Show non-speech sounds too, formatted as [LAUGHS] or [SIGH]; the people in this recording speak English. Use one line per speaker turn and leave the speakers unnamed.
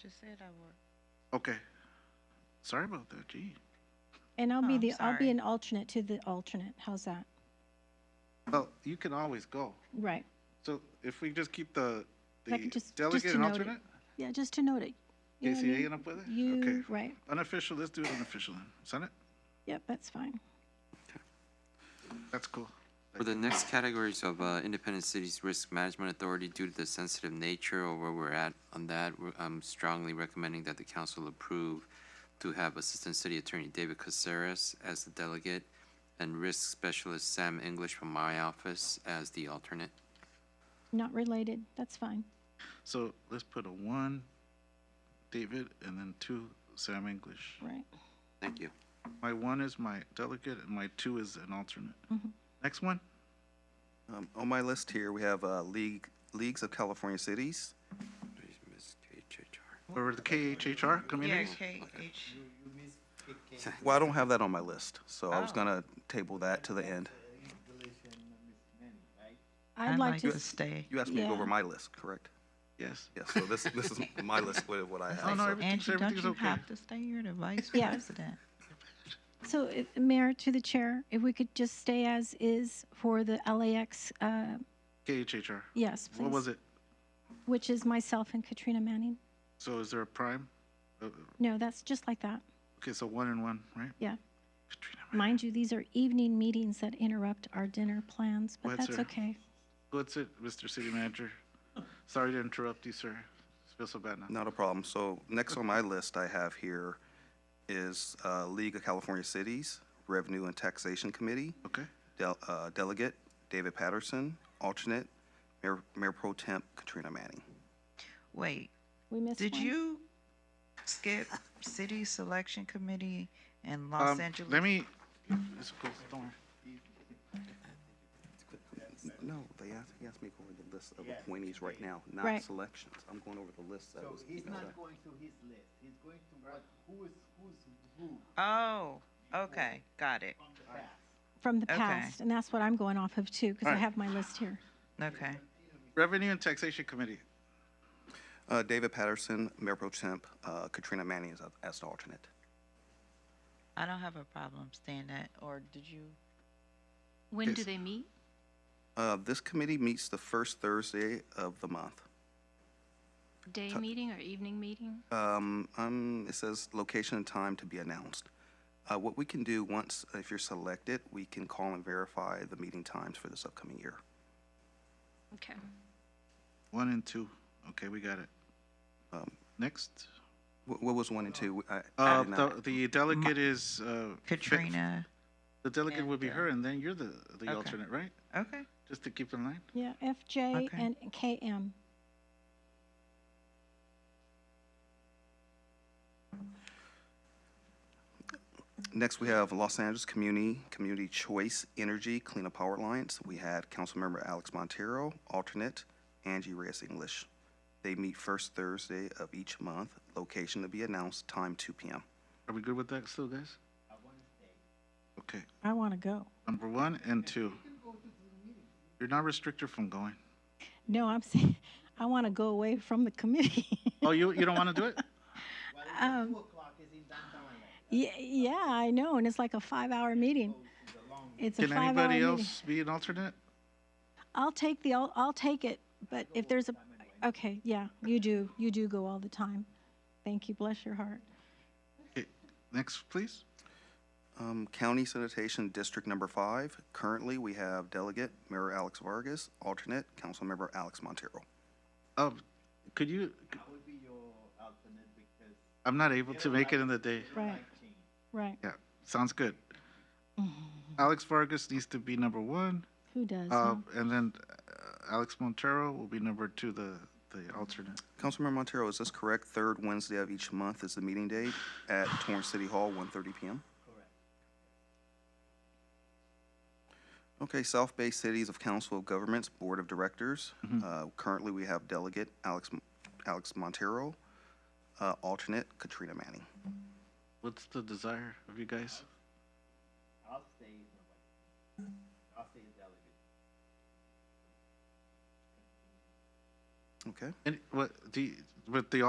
just said I would.
Okay. Sorry about that, gee.
And I'll
Oh,
be
I'm
the, I'll
sorry.
be an alternate to the alternate. How's that?
Well, you can always go.
Right.
So if we just keep the,
Like,
the
just- just
delegate
to
and
note it.
alternate?
Yeah, just to note it. You know what I
KCA
mean?
end up with it? Okay.
You, right.
Unofficial, let's do it unofficial then. Senate?
Yep, that's fine.
That's cool.
For the next categories of uh, independent cities risk management authority, due to the sensitive nature or where we're at on that, we're- I'm strongly recommending that the council approve to have Assistant City Attorney David Caceres as the delegate and Risk Specialist Sam English from my office as the alternate.
Not related. That's fine.
So let's put a one, David, and then two, Sam English.
Right.
Thank you.
My one is my delegate and my two is an alternate.
Mm-hmm.
Next one?
Um, on my list here, we have, uh, League, Leagues of
[LAUGHS]
California Cities.
Or the KHHR
Yeah,
communities?
K H.
Well, I don't have that on my list, so
Oh.
I was gonna table that to the end.
I'd like to, s-
stay.
You asked me to go over
Yeah.
my list, correct?
Yes.
Yes, so this,
[LAUGHS]
this is my list with what I
Oh,
have.
no,
so-
everything's,
Angie, don't
everything's
you
okay.
have to stay? You're the vice
Yeah.
president.
so if- Mayor, to the chair, if we could just stay as is for the LAX, uh,
KHHR.
yes, please.
What was it?
Which is myself and Katrina Manning.
So is there a prime? Uh,
No, that's just like that.
Okay, so one and one, right?
Yeah.
Katrina,
Mind you, these are evening meetings that interrupt our dinner plans, but
What's
that's
her-
okay.
what's it, Mr. City Manager? Sorry to interrupt you, sir. I feel so bad now.
Not a problem. So next on my list I have here is, uh, League of California Cities Revenue and Taxation Committee.
Okay,
Del- uh, Delegate David Patterson, alternate Mayor, Mayor Pro Temp Katrina Manning.
Wait,
We missed one.
did you skip city selection committee in Los
Um,
Angeles?
Let me, it's cool, don't worry.
No, they asked, he asked me to go over the list of appointees right now, not
Right.
selections. I'm going over the list that
So
was
he's
emailed
not
out.
going to his list, he's going to what, who is, who's who
Oh, okay, got it.
from the past.
From the
Okay.
past, and that's what I'm going off of too, because I
Alright.
have my list here.
Okay.
Revenue and Taxation Committee.
Uh, David Patterson, Mayor Pro Temp, uh, Katrina Manning is a- as the alternate.
I don't have a problem staying that, or did you?
When do
Yes.
they meet?
Uh, this committee meets the first Thursday of the month.
Day meeting or evening meeting?
Um, um, it says location and time to be announced. Uh, what we can do once, if you're selected, we can call and verify the meeting times for this upcoming year.
Okay.
One and two. Okay, we got it.
Um,
Next.
What, what was one and two? I- I
Uh,
did not-
the, the delegate is, uh. Fe-
Katrina?
The delegate would be
and, uh,
her and then you're the,
okay.
the alternate, right?
Okay,
Just to keep in line.
Yeah, FJ
Okay.
and KM.
Next, we have Los Angeles Community, Community Choice Energy Cleanup Power Alliance. We had Councilmember Alex Montero, alternate Angie Reyes English. They meet first Thursday of each month, location to be announced, time 2 PM.
Are we good with that still, guys? Okay,
I want to go.
number one and two. You're not restricted from going.
No, I'm [LAUGHS] saying, I want to go away from the committee. [LAUGHS]
Oh, you, you don't want to do it?
Um, Yeah, yeah, I know, and it's like a five-hour meeting. It's a
Can
five-hour
anybody
meeting.
else be an alternate?
I'll take the, I'll, I'll take it, but if there's a, okay, yeah, you do, you do go all the time. Thank you, bless your heart.
Okay, Next, please.
Um, County Sanitation District Number Five, currently, we have delegate Mayor Alex Vargas, alternate Councilmember Alex Montero.
Um, could you,
I will be your alternate because
I'm not able to make it in the day.
Right,
change.
right.
Yeah, sounds good. Alex Vargas needs to be number one,
Who does?
uh,
huh?
and then uh, Alex Montero will be number two, the, the alternate.
Councilmember Montero, is this correct? Third Wednesday of each month is the meeting date at Torrance City Hall, 1:30 PM? Okay, South Bay Cities of Council of Governments Board of Directors. Uh, Currently, we have delegate Alex Alex Montero, uh, alternate Katrina Manning.
What's the desire of you guys?
I'll stay, as my vice. I'll stay as delegate.
Okay?
And what, do you, with the